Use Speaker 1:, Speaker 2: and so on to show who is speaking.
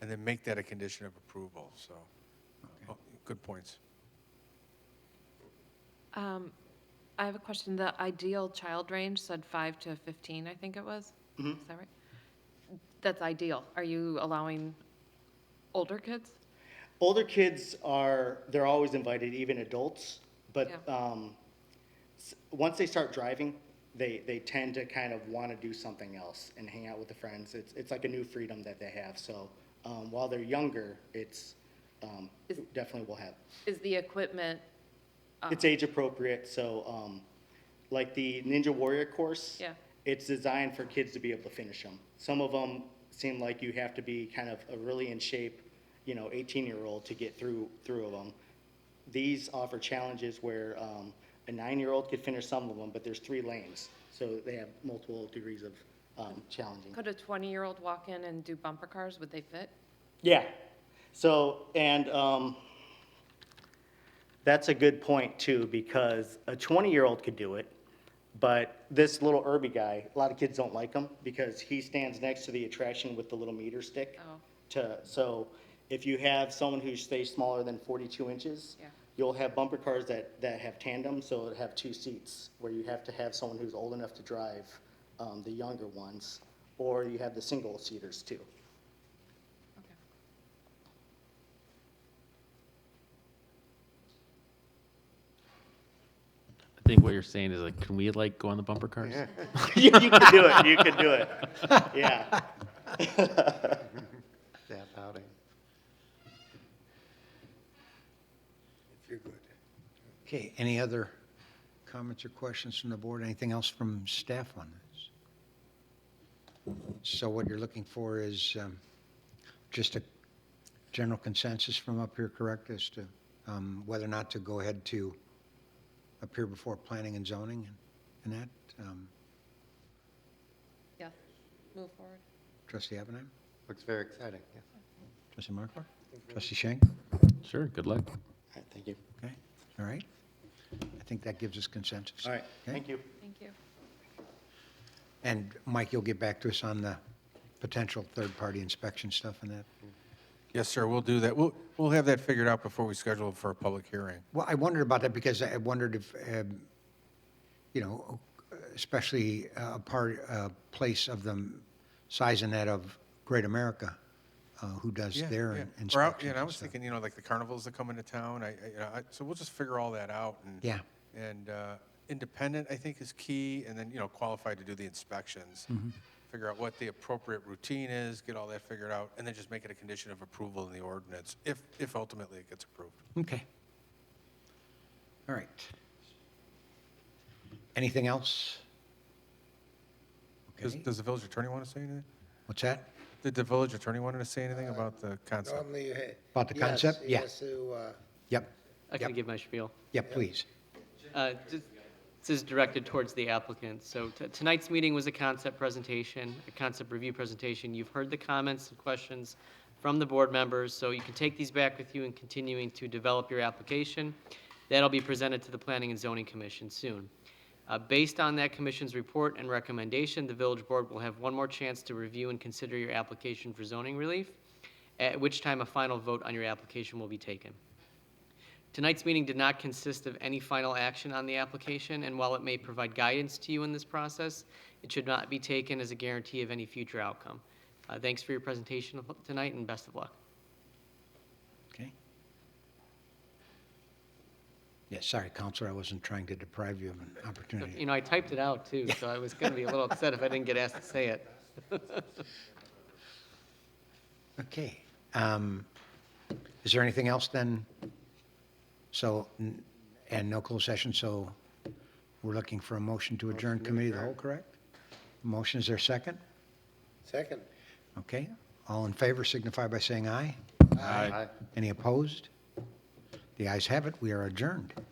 Speaker 1: and then make that a condition of approval, so. oh, Good points.
Speaker 2: I have a question. The ideal child range said five to 15, I think it was. Is that right? That's ideal. Are you allowing older kids?
Speaker 3: Older kids are, they're always invited, even adults, but
Speaker 2: Yeah.
Speaker 3: um, s- once they start driving, they, they tend to kind of want to do something else and hang out with the friends. It's, it's like a new freedom that they have. So um, while they're younger, it's um,
Speaker 2: Is-
Speaker 3: definitely will have.
Speaker 2: Is the equipment,
Speaker 3: It's age appropriate, so um, like the Ninja Warrior course.
Speaker 2: Yeah.
Speaker 3: It's designed for kids to be able to finish them. Some of them seem like you have to be kind of a really in shape, you know, 18-year-old to get through, through of them. These offer challenges where um, a nine-year-old could finish some of them, but there's three lanes, so they have multiple degrees of um, challenging.
Speaker 2: could a 20-year-old walk in and do bumper cars? Would they fit?
Speaker 3: Yeah. So, and um, that's a good point too, because a 20-year-old could do it, but this little Irby guy, a lot of kids don't like him because he stands next to the attraction with the little meter stick.
Speaker 2: Oh.
Speaker 3: To, so if you have someone who stays smaller than 42 inches,
Speaker 2: Yeah.
Speaker 3: you'll have bumper cars that, that have tandem, so it have two seats, where you have to have someone who's old enough to drive, um, the younger ones, or you have the single-seaters too.
Speaker 2: Okay.
Speaker 4: I think what you're saying is like, can we like go on the bumper cars?
Speaker 3: you, you could do it. You could do it. Yeah.
Speaker 5: staff outing.
Speaker 1: You're good.
Speaker 5: Okay, any other comments or questions from the board? Anything else from staff on this? So what you're looking for is um, just a general consensus from up here, correct, as to um, whether or not to go ahead to appear before planning and zoning and and that? Um,
Speaker 2: Yeah. Move forward.
Speaker 5: Trustee Abenam?
Speaker 6: Looks very exciting, yeah.
Speaker 5: Trustee Markler? Trustee Shank?
Speaker 4: Sure, good luck.
Speaker 3: thank you.
Speaker 5: Okay, all right. I think that gives us consensus.
Speaker 3: All right.
Speaker 5: Okay?
Speaker 3: Thank you.
Speaker 2: Thank you.
Speaker 5: And Mike, you'll get back to us on the potential third-party inspection stuff and that?
Speaker 1: Yes, sir, we'll do that. We'll, we'll have that figured out before we schedule it for a public hearing.
Speaker 5: Well, I wondered about that because I wondered if, um, you know, especially uh, a part, a place of the size and that of Great America, uh, who does
Speaker 1: Yeah, yeah.
Speaker 5: their
Speaker 1: Or, out- yeah,
Speaker 5: inspections
Speaker 1: and I
Speaker 5: and
Speaker 1: was
Speaker 5: stuff.
Speaker 1: thinking, you know, like the carnivals that come into town, I, I- you know, I, so we'll just figure all that out and.
Speaker 5: Yeah.
Speaker 1: And, uh, independent, I think, is key, and then, you know, qualified to do the inspections.
Speaker 5: Mm-hmm.
Speaker 1: Figure out what the appropriate routine is, get all that figured out, and then just make it a condition of approval in the ordinance, if, if ultimately it gets approved.
Speaker 5: Okay. All right. Anything else?
Speaker 1: Does,
Speaker 5: Okay,
Speaker 1: does the village attorney want to say anything?
Speaker 5: what's that?
Speaker 1: Did the village attorney want to say anything about the concept?
Speaker 7: Normally you hit.
Speaker 5: About the concept? Yeah.
Speaker 7: Yes, you, uh,
Speaker 5: Yep,
Speaker 8: I
Speaker 5: Yep.
Speaker 8: can give my spiel.
Speaker 5: yeah, please.
Speaker 8: Uh, just- This is directed towards the applicant. So t- tonight's meeting was a concept presentation, a concept review presentation. You've heard the comments and questions from the board members, so you can take these back with you in continuing to develop your application. That'll be presented to the Planning and Zoning Commission soon. Uh, Based on that commission's report and recommendation, the village board will have one more chance to review and consider your application for zoning relief, at which time a final vote on your application will be taken. Tonight's meeting did not consist of any final action on the application, and while it may provide guidance to you in this process, it should not be taken as a guarantee of any future outcome. Uh, Thanks for your presentation tonight, and best of luck.
Speaker 5: Okay. Yeah, sorry, Counselor, I wasn't trying to deprive you of an
Speaker 8: You
Speaker 5: opportunity.
Speaker 8: know, I typed it out, too, so I was going to be a little upset if I didn't get asked to say it.
Speaker 5: Okay. um, Is there anything else then? So, n- and no closed session, so we're looking for a motion to adjourn committee of the whole, correct? Motion, is there a second?
Speaker 7: second.
Speaker 5: Okay. All in favor signify by saying aye.
Speaker 4: Aye.
Speaker 5: Any opposed? The ayes have it, we are adjourned.